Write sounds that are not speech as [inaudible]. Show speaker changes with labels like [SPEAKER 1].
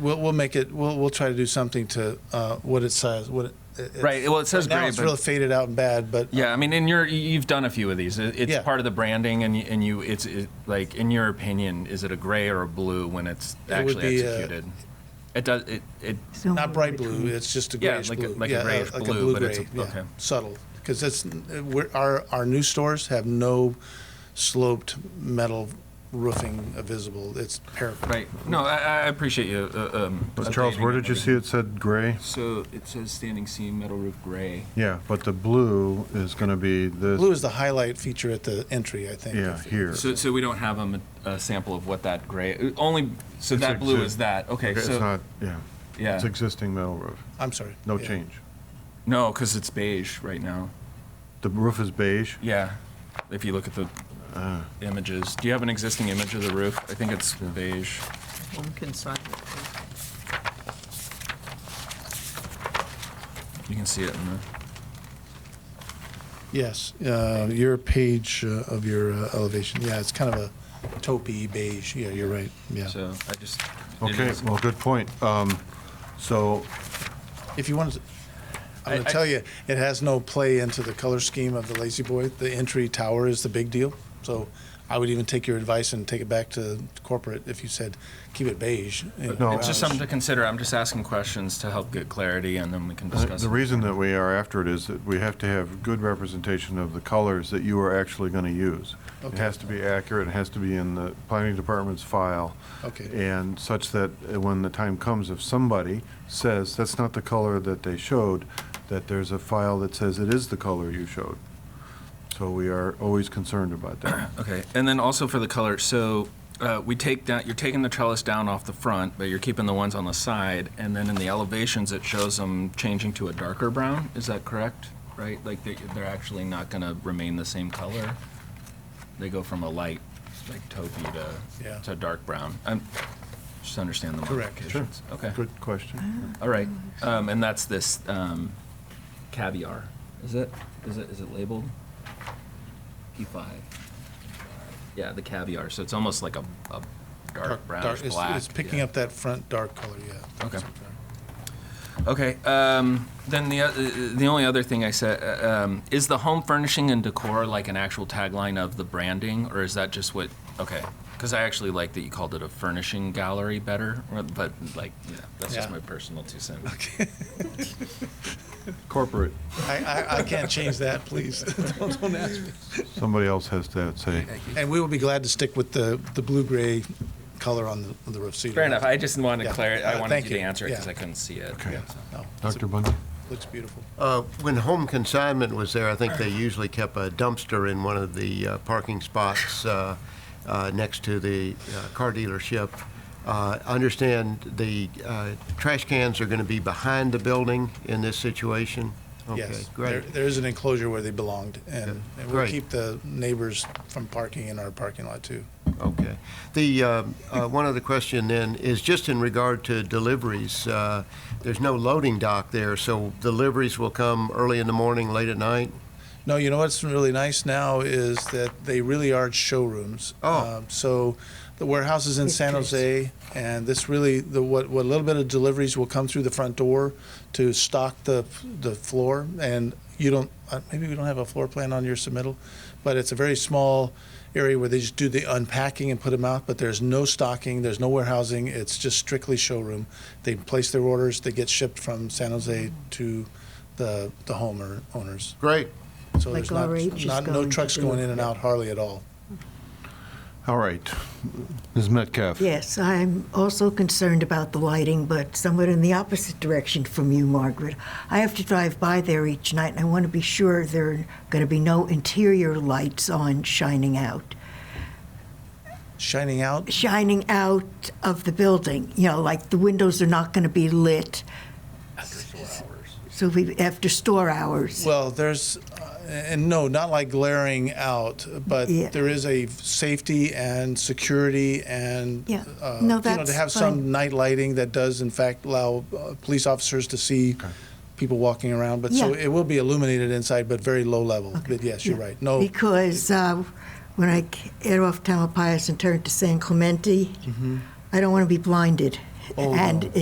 [SPEAKER 1] We'll, we'll make it. We'll, we'll try to do something to uh, what it says. What it, it, it-
[SPEAKER 2] Right, well, it says
[SPEAKER 1] right now
[SPEAKER 2] gray,
[SPEAKER 1] it's
[SPEAKER 2] but-
[SPEAKER 1] really faded out and bad, but uh,
[SPEAKER 2] Yeah, I mean, in your you've done a few of these. It- It's
[SPEAKER 1] Yeah.
[SPEAKER 2] part of the branding, and you, and you it's it, like in your opinion, is it a gray or a blue when it's
[SPEAKER 1] It would
[SPEAKER 2] actually
[SPEAKER 1] be, uh,
[SPEAKER 2] executed? it does. It, it
[SPEAKER 1] not bright blue. It's just a
[SPEAKER 2] Yeah,
[SPEAKER 1] grayish
[SPEAKER 2] like a-
[SPEAKER 1] blue.
[SPEAKER 2] like a grayish
[SPEAKER 1] like
[SPEAKER 2] blue,
[SPEAKER 1] a blue
[SPEAKER 2] but
[SPEAKER 1] gray.
[SPEAKER 2] it's a-
[SPEAKER 1] yeah,
[SPEAKER 2] okay.
[SPEAKER 1] subtle because it's we're, our our new stores have no sloped metal roofing visible. It's parapet.
[SPEAKER 2] right. No, I, I appreciate you. Uh, um,
[SPEAKER 3] But Charles, where
[SPEAKER 2] updating
[SPEAKER 3] did you
[SPEAKER 2] it.
[SPEAKER 3] see it said gray?
[SPEAKER 2] So it says standing seam metal roof gray.
[SPEAKER 3] Yeah, but the blue is going to be
[SPEAKER 1] Blue
[SPEAKER 3] this,
[SPEAKER 1] is the highlight feature at the entry, I think.
[SPEAKER 3] yeah,
[SPEAKER 1] if-
[SPEAKER 3] here.
[SPEAKER 2] So so we don't have a, ma- a sample of what that gray uh, only. So
[SPEAKER 3] It's
[SPEAKER 2] that
[SPEAKER 3] ex-
[SPEAKER 2] blue is that. Okay.
[SPEAKER 3] It's
[SPEAKER 2] so
[SPEAKER 3] not, yeah,
[SPEAKER 2] yeah.
[SPEAKER 3] it's existing metal roof,
[SPEAKER 1] I'm sorry.
[SPEAKER 3] no
[SPEAKER 1] Yeah.
[SPEAKER 3] change.
[SPEAKER 2] no, because it's beige right now.
[SPEAKER 3] The roof is beige,
[SPEAKER 2] Yeah. If you look at the
[SPEAKER 3] Ah,
[SPEAKER 2] images, do you have an existing image of the roof? I think it's beige.
[SPEAKER 4] One can sign it.
[SPEAKER 2] You can see it in the.
[SPEAKER 1] Yes, uh, your page uh, of your uh, elevation. Yeah, it's kind of a taupey beige. Yeah, you're right. Yeah.
[SPEAKER 2] So I just. it
[SPEAKER 3] okay,
[SPEAKER 2] is-
[SPEAKER 3] well, good point. Um, So,
[SPEAKER 1] If you want to, I'm
[SPEAKER 2] I-
[SPEAKER 1] going
[SPEAKER 2] I-
[SPEAKER 1] to tell you, it has no play into the color scheme of the Lazy Boy. The entry tower is the big deal. So I would even take your advice and take it back to corporate if you said, keep it beige. you know,
[SPEAKER 3] No.
[SPEAKER 2] It's
[SPEAKER 1] brownish.
[SPEAKER 2] just something to consider. I'm just asking questions to help get clarity and then we can
[SPEAKER 3] uh,
[SPEAKER 2] discuss.
[SPEAKER 3] the
[SPEAKER 2] it.
[SPEAKER 3] reason that we are after it is that we have to have good representation of the colors that you are actually going to use. It
[SPEAKER 1] Okay.
[SPEAKER 3] has to be accurate, it has to be in the planning department's file.
[SPEAKER 1] Okay,
[SPEAKER 3] And such that uh, when the time comes, if somebody says, that's not the color that they showed, that there's a file that says it is the color you showed. So we are always concerned about
[SPEAKER 2] [coughs]
[SPEAKER 3] that.
[SPEAKER 2] Okay, and then also for the color, so uh, we take down, you're taking the trellis down off the front, but you're keeping the ones on the side. And then in the elevations, it shows them changing to a darker brown. Is that correct? Right? Like they, they're actually not going to remain the same color. They go from a light, like taupey
[SPEAKER 1] Yeah.
[SPEAKER 2] to, to dark brown. I'm, just understand the
[SPEAKER 1] Correct.
[SPEAKER 2] modifications. Okay.
[SPEAKER 3] Good question.
[SPEAKER 2] All right, um, and that's this um, caviar. Is it? Is it? Is it labeled? P five. Yeah, the caviar. So it's almost like a, a dark brownish
[SPEAKER 1] it's-
[SPEAKER 2] black.
[SPEAKER 1] It's picking up that front dark color, yeah.
[SPEAKER 2] Okay. Okay. Um, then the o- the only other thing I said uh, um, is the home furnishing and decor like an actual tagline of the branding, or is that just what? Okay. Because I actually like that you called it a furnishing gallery better, but like, yeah, that's just
[SPEAKER 1] Yeah.
[SPEAKER 2] my personal two cents.
[SPEAKER 3] Corporate,
[SPEAKER 1] I, I, I can't change that, please. [laughs] Don't don't ask me.
[SPEAKER 3] somebody else has to say.
[SPEAKER 1] And we will be glad to stick with the, the blue-gray color on the, on the roof. so you
[SPEAKER 2] Fair
[SPEAKER 1] don't
[SPEAKER 2] enough.
[SPEAKER 1] have
[SPEAKER 2] I just wanted
[SPEAKER 1] Yeah.
[SPEAKER 2] clarity. I
[SPEAKER 1] Uh,
[SPEAKER 2] wanted
[SPEAKER 1] thank
[SPEAKER 2] you to
[SPEAKER 1] you.
[SPEAKER 2] answer it
[SPEAKER 1] Yeah.
[SPEAKER 2] because I couldn't see it.
[SPEAKER 1] to-
[SPEAKER 2] Yeah.
[SPEAKER 1] yeah, no, it's-
[SPEAKER 3] Dr. Bundy?
[SPEAKER 1] Looks beautiful.
[SPEAKER 5] Uh, When home consignment was there, I think they usually kept a dumpster in one of the uh, parking spots uh, uh, next to the uh, car dealership. Uh, I Understand the uh, trash cans are going to be behind the building in this situation? Okay,
[SPEAKER 1] Yes, there,
[SPEAKER 5] great.
[SPEAKER 1] there is an enclosure where they belonged, and and we'll
[SPEAKER 5] Great.
[SPEAKER 1] keep the neighbors from parking in our parking lot, too.
[SPEAKER 5] Okay. The, um, uh, one other question then is just in regard to deliveries. uh, There's no loading dock there, so deliveries will come early in the morning, late at night?
[SPEAKER 1] No, you know what's really nice now is that they really are showrooms.
[SPEAKER 5] Oh.
[SPEAKER 1] Um, so the warehouse is in San Jose, and this really the what what little bit of deliveries will come through the front door to stock the the floor. And you don't uh, maybe we don't have a floor plan on your submittal, but it's a very small area where they just do the unpacking and put them out. But there's no stocking, there's no warehousing. It's just strictly showroom. They place their orders, they get shipped from San Jose to the the home or owners.
[SPEAKER 5] Great.
[SPEAKER 1] So
[SPEAKER 6] Like
[SPEAKER 1] there's not,
[SPEAKER 6] RH is
[SPEAKER 1] not, no
[SPEAKER 6] going to
[SPEAKER 1] trucks
[SPEAKER 6] do
[SPEAKER 1] going
[SPEAKER 6] it.
[SPEAKER 1] in and out hardly at all.
[SPEAKER 3] All right, Ms. Metcalf?
[SPEAKER 6] Yes, I'm also concerned about the lighting, but somewhat in the opposite direction from you, Margaret. I have to drive by there each night, and I want to be sure there are going to be no interior lights on shining out.
[SPEAKER 1] Shining out,
[SPEAKER 6] Shining out of the building, you know, like the windows are not going to be lit. So we, after store hours.
[SPEAKER 1] well, there's, uh, and no, not like glaring out, but
[SPEAKER 6] Yeah.
[SPEAKER 1] there is a safety and security and,
[SPEAKER 6] Yeah.
[SPEAKER 1] uh,
[SPEAKER 6] No,
[SPEAKER 1] you know,
[SPEAKER 6] that's
[SPEAKER 1] to have
[SPEAKER 6] fine.
[SPEAKER 1] some night lighting that does in fact allow uh, police officers to see people walking around. But so
[SPEAKER 6] Yeah.
[SPEAKER 1] it will be illuminated inside, but very low level. But yes, you're
[SPEAKER 6] Yeah.
[SPEAKER 1] right. No,
[SPEAKER 6] Because uh, when
[SPEAKER 1] Mm-hmm.
[SPEAKER 6] I get off Tamalpais and turn to San Clemente, I don't want to be blinded. Oh,
[SPEAKER 7] and
[SPEAKER 6] no.